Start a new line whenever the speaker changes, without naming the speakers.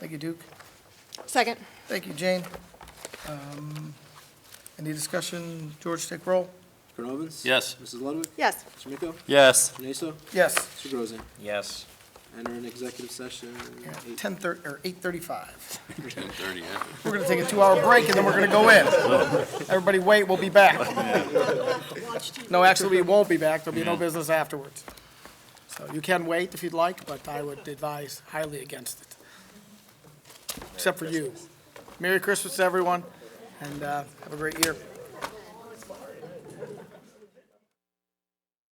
Thank you, Duke.
Second.
Thank you, Jane. Um, Any discussion? George, take roll.
Colonel Evans?
Yes.
Mrs. Ludwig?
Yes.
Mr. Miko?
Yes.
Mr. Nasa?
Yes.
Mr. Grozen?
Yes.
Enter an executive session. eight-
Ten thirty, or eight thirty-five.
Ten thirty, yeah.
We're gonna take a two-hour break and then we're gonna go in. Everybody wait, we'll be back. No, actually, we won't be back. There'll be no business afterwards. So you can wait if you'd like, but I would advise highly against it. Except for you. Merry Christmas, everyone, and, uh, have a great year.